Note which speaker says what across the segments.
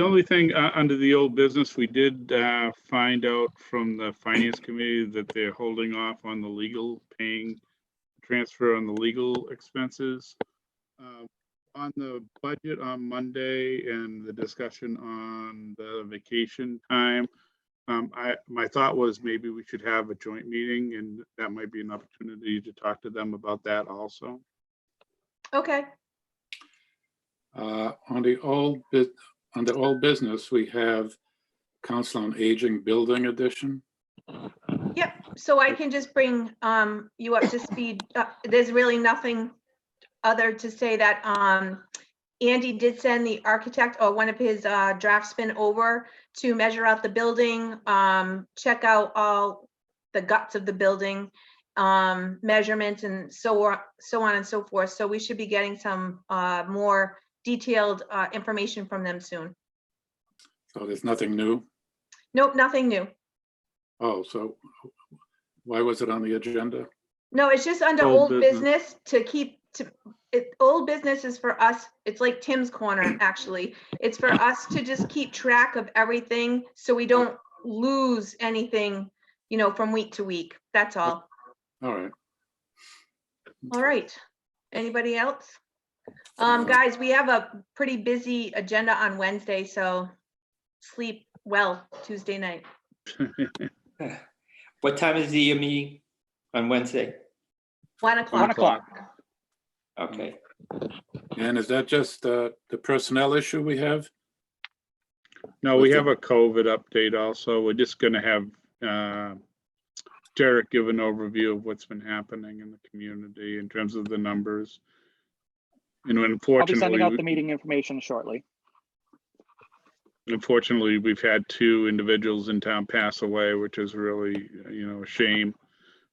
Speaker 1: The only thing, uh, under the old business, we did, uh, find out from the finance committee that they're holding off on the legal paying transfer on the legal expenses. Uh, On the budget on Monday and the discussion on the vacation time, um, I, my thought was maybe we should have a joint meeting and that might be an opportunity to talk to them about that also.
Speaker 2: Okay,
Speaker 3: Uh, On the old, bu- under all business, we have Council on Aging Building Edition.
Speaker 2: yep. So I can just bring um you up to speed. Uh, There's really nothing other to say that um Andy did send the architect or one of his uh draftsmen over to measure out the building, um, check out all the guts of the building, um, measurements and so on, so on and so forth. So we should be getting some uh more detailed uh information from them soon.
Speaker 3: So there's nothing new.
Speaker 2: Nope, nothing new.
Speaker 3: Oh, so why was it on the agenda?
Speaker 2: No, it's just under
Speaker 1: Old
Speaker 2: old
Speaker 1: business.
Speaker 2: business to keep, to, it, old business is for us, it's like Tim's corner, actually. It's for us to just keep track of everything, so we don't lose anything, you know, from week to week, that's all.
Speaker 3: All right.
Speaker 2: All right, anybody else? Um, guys, we have a pretty busy agenda on Wednesday, so sleep well Tuesday night.
Speaker 4: What time is the uh, meeting on Wednesday?
Speaker 2: One
Speaker 5: One
Speaker 2: o'clock,
Speaker 5: o'clock.
Speaker 4: Okay,
Speaker 3: And is that just uh, the personnel issue we have?
Speaker 1: No, we
Speaker 3: What's
Speaker 1: have a COVID update also. We're just gonna have uh, Derek give an overview of what's been happening in the community in terms of the numbers. And
Speaker 5: I'll be sending out the
Speaker 1: unfortunately,
Speaker 5: meeting information shortly.
Speaker 1: unfortunately, we've had two individuals in town pass away, which is really, you know, a shame.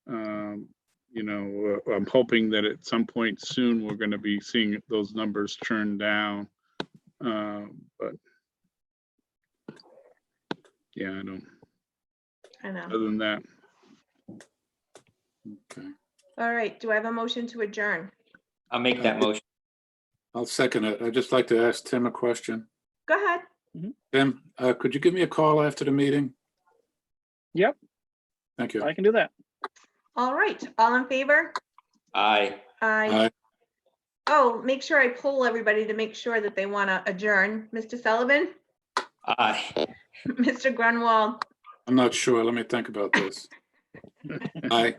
Speaker 1: Um, You know, uh, I'm hoping that at some point soon, we're gonna be seeing those numbers churn down. Um, But yeah, I don't,
Speaker 2: I know.
Speaker 1: other than that,
Speaker 3: Okay,
Speaker 2: All right, do I have a motion to adjourn?
Speaker 4: I'll make that motion.
Speaker 3: I'll second it. I'd just like to ask Tim a question.
Speaker 2: Go ahead,
Speaker 3: Tim, uh, could you give me a call after the meeting?
Speaker 5: Yep.
Speaker 3: Thank you.
Speaker 5: I can do that.
Speaker 2: all right, all in favor?
Speaker 4: Aye.
Speaker 2: Aye.
Speaker 3: Aye.
Speaker 2: Oh, make sure I poll everybody to make sure that they want to adjourn. Mr. Sullivan,
Speaker 4: Aye.
Speaker 2: Mr. Grunwald,
Speaker 3: I'm not sure. Let me think about this. Aye.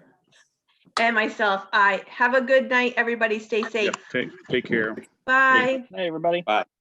Speaker 2: and myself. I have a good night, everybody. Stay
Speaker 1: yeah,
Speaker 2: safe.
Speaker 1: take, take care.
Speaker 2: Bye.
Speaker 5: Hey, everybody.
Speaker 4: Bye.